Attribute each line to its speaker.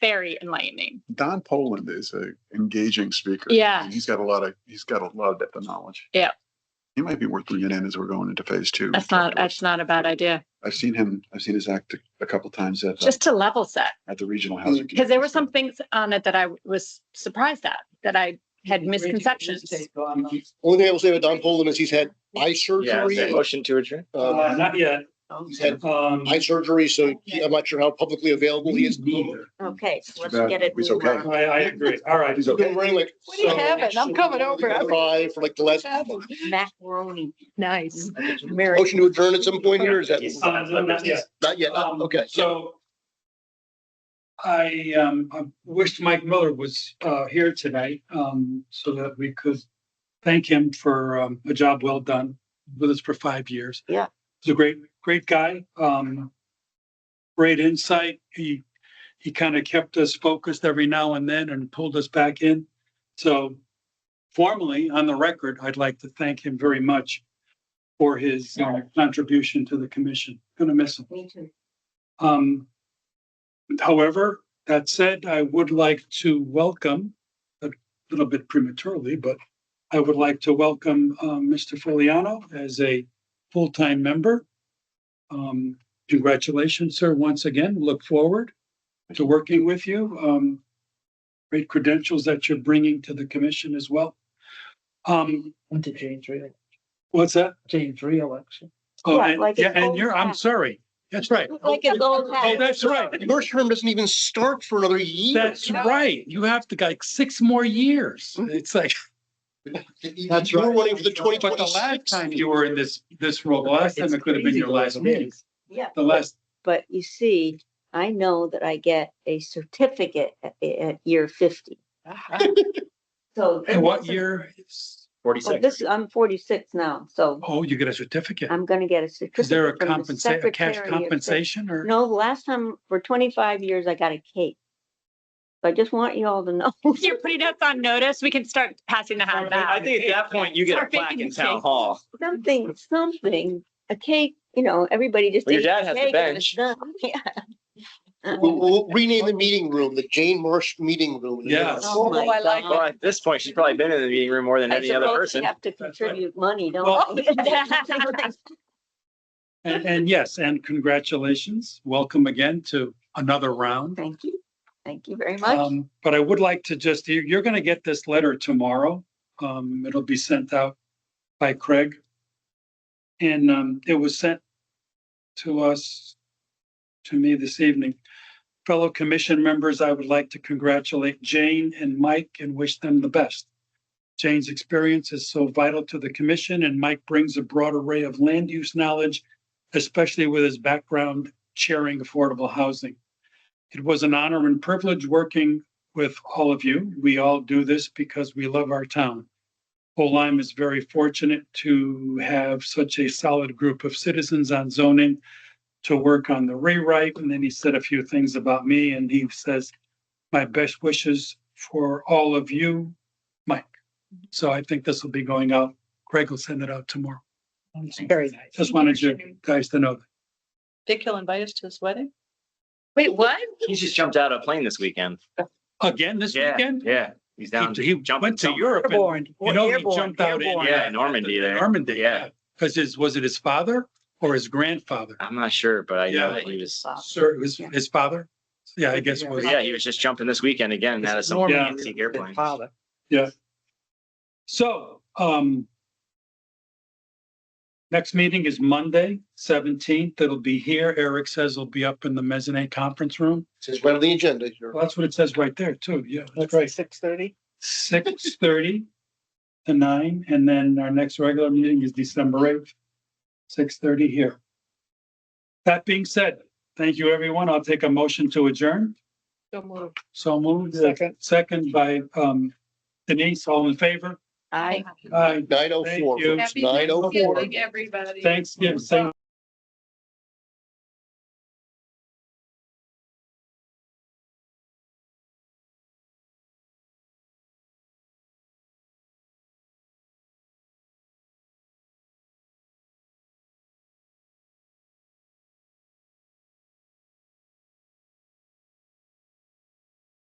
Speaker 1: very enlightening.
Speaker 2: Don Poland is a engaging speaker.
Speaker 1: Yeah.
Speaker 2: And He's got a lot of, he's got a lot of depth of knowledge.
Speaker 1: Yeah.
Speaker 2: He might be worth bringing in as we're going into phase two.
Speaker 1: That's not, that's not a bad idea.
Speaker 2: I've seen him, I've seen his act a couple times at, uh,
Speaker 1: Just to level set,
Speaker 2: at the regional housing.
Speaker 1: because there were
Speaker 2: conference.
Speaker 1: some things on it that I was surprised at, that I had misconceptions.
Speaker 3: Only thing I will say about Don Poland is he's had eye
Speaker 4: Yeah, is there a
Speaker 3: surgery.
Speaker 4: motion to adjourn?
Speaker 3: um,
Speaker 5: Uh, not yet.
Speaker 3: He's had
Speaker 5: Um,
Speaker 3: eye surgery, so he- I'm not sure how publicly available he is.
Speaker 5: Neither.
Speaker 1: Oh.
Speaker 6: Okay, so let's
Speaker 2: bad.
Speaker 6: get it.
Speaker 2: Mm. It's
Speaker 6: moved
Speaker 2: okay.
Speaker 6: on.
Speaker 5: I, I agree. All right.
Speaker 2: He's
Speaker 3: He's been
Speaker 2: okay.
Speaker 3: wearing like.
Speaker 6: What do you
Speaker 3: so-
Speaker 6: have it?
Speaker 1: I'm coming over.
Speaker 3: Eye for like the last.
Speaker 6: Macaroni.
Speaker 1: Nice.
Speaker 6: Mary.
Speaker 3: Motion to adjourn at some point here, is that?
Speaker 5: Uh, no, not yet.
Speaker 3: Not yet,
Speaker 5: Um,
Speaker 3: okay.
Speaker 5: So I, um, I wished Mike Miller was, uh, here tonight, um, so that we could thank him for, um, a job well done with us for five years.
Speaker 6: Yeah.
Speaker 5: He's a great, great guy, um, great insight. He, he kind of kept us focused every now and then and pulled us back in. So formally, on the record, I'd like to thank him very much for his uh, contribution to the commission. Gonna miss him.
Speaker 6: Me too.
Speaker 5: Um, however, that said, I would like to welcome, a little bit prematurely, but I would like to welcome, um, Mr. Foliano as a full-time member. Um, congratulations, sir, once again. Look forward to working with you. Um, great credentials that you're bringing to the commission as well. Um,
Speaker 7: Into Jane's re,
Speaker 5: what's that?
Speaker 7: Jane's reelection.
Speaker 5: Oh,
Speaker 6: Yeah,
Speaker 5: and,
Speaker 6: like
Speaker 5: yeah,
Speaker 6: an
Speaker 5: and
Speaker 6: old
Speaker 5: you're, I'm
Speaker 6: hat.
Speaker 5: sorry. That's right.
Speaker 6: Like an old
Speaker 5: Oh,
Speaker 6: hat.
Speaker 5: that's right.
Speaker 3: Your term doesn't even start for another year.
Speaker 5: That's right. You have to like six more years.
Speaker 6: Mm-hmm.
Speaker 5: It's like,
Speaker 3: That's You're running for the twenty
Speaker 5: but the last
Speaker 3: twenty-six.
Speaker 5: time you were in this, this role, the last time it could have been your last meeting,
Speaker 6: Yeah.
Speaker 5: the last.
Speaker 6: But you see, I know that I get a certificate at, at year fifty. So.
Speaker 5: And what year? is-
Speaker 6: Well,
Speaker 4: Forty-six.
Speaker 6: This, I'm forty-six now, so
Speaker 5: Oh, you get a certificate.
Speaker 6: I'm gonna get a certificate.
Speaker 5: Is there a
Speaker 6: from the
Speaker 5: compensa- a cash
Speaker 6: Secretary of State.
Speaker 5: compensation or?
Speaker 6: No, the last time, for twenty-five years, I got a cake. So I just want you all to know.
Speaker 1: You're putting us on notice. We can start passing the hat
Speaker 4: I
Speaker 1: back.
Speaker 4: think at that point you get a
Speaker 1: Start
Speaker 4: plaque
Speaker 1: baking
Speaker 4: in
Speaker 1: the
Speaker 4: town
Speaker 1: cake.
Speaker 4: hall.
Speaker 6: Something, something, a cake, you know, everybody just.
Speaker 4: Well, your
Speaker 6: ate
Speaker 4: dad has the
Speaker 6: cake and it was
Speaker 4: bench.
Speaker 6: done. Uh-huh. Yeah.
Speaker 3: We'll, we'll rename the meeting room, the Jane Marsh Meeting Room.
Speaker 5: Yes.
Speaker 6: Oh,
Speaker 7: Oh,
Speaker 6: I like
Speaker 4: Well, at this point, she's probably been in the meeting room more than
Speaker 6: I
Speaker 4: any other
Speaker 6: suppose they
Speaker 4: person.
Speaker 6: have to
Speaker 5: That's right.
Speaker 6: contribute money,
Speaker 5: Well-
Speaker 6: don't they?
Speaker 5: And, and yes, and congratulations. Welcome again to another round.
Speaker 6: Thank you. Thank you very much.
Speaker 5: Um, but I would like to just, you're, you're gonna get this letter tomorrow. Um, it'll be sent out by Craig. And, um, it was sent to us, to me this evening. Fellow commission members, I would like to congratulate Jane and Mike and wish them the best. Jane's experience is so vital to the commission and Mike brings a broad array of land use knowledge, especially with his background chairing affordable housing. It was an honor and privilege working with all of you. We all do this because we love our town. Olam is very fortunate to have such a solid group of citizens on zoning to work on the rewrite. And then he said a few things about me and he says, my best wishes for all of you, Mike. So I think this will be going out. Greg will send it out tomorrow.
Speaker 7: Very nice.
Speaker 5: Just wanted you guys to know. that.
Speaker 7: Dick, he'll invite us to his wedding?
Speaker 1: Wait, what?
Speaker 4: He just jumped out of a plane this weekend.
Speaker 5: Again, this
Speaker 4: Yeah,
Speaker 5: weekend?
Speaker 4: yeah. He's down.
Speaker 5: He he
Speaker 4: jumping
Speaker 5: went to
Speaker 4: somewhere.
Speaker 5: Europe and
Speaker 7: Airborne.
Speaker 5: You know, he jumped out in.
Speaker 4: Yeah, Normandy there.
Speaker 5: Normandy, yeah.
Speaker 4: Yeah.
Speaker 5: Because his, was it his father or his grandfather?
Speaker 4: I'm not sure, but I know
Speaker 5: Yeah.
Speaker 4: that he was,
Speaker 5: Sir, it was
Speaker 6: Yeah.
Speaker 5: his father? Yeah, I guess it was.
Speaker 4: yeah, he was just jumping this weekend again out of some
Speaker 5: Normandy.
Speaker 4: fancy airplane.
Speaker 7: Father.
Speaker 5: So, um, next meeting is Monday, seventeenth. It'll be here. Eric says it'll be up in the mezzanine conference room.
Speaker 3: It's right on the agenda here.
Speaker 5: Well, that's what it says right there too. Yeah, that's right.
Speaker 7: Six thirty?
Speaker 5: six thirty to nine, and then our next regular meeting is December eighth, six thirty here. That being said, thank you, everyone. I'll take a motion to adjourn.
Speaker 7: Don't move.
Speaker 5: So moved.
Speaker 7: Second.
Speaker 5: Second by um Denise, all in favor?
Speaker 6: I.
Speaker 5: Aye.
Speaker 3: Nine oh four.
Speaker 5: Thank you.
Speaker 3: Nhanksgiving,
Speaker 5: Thanksgiving,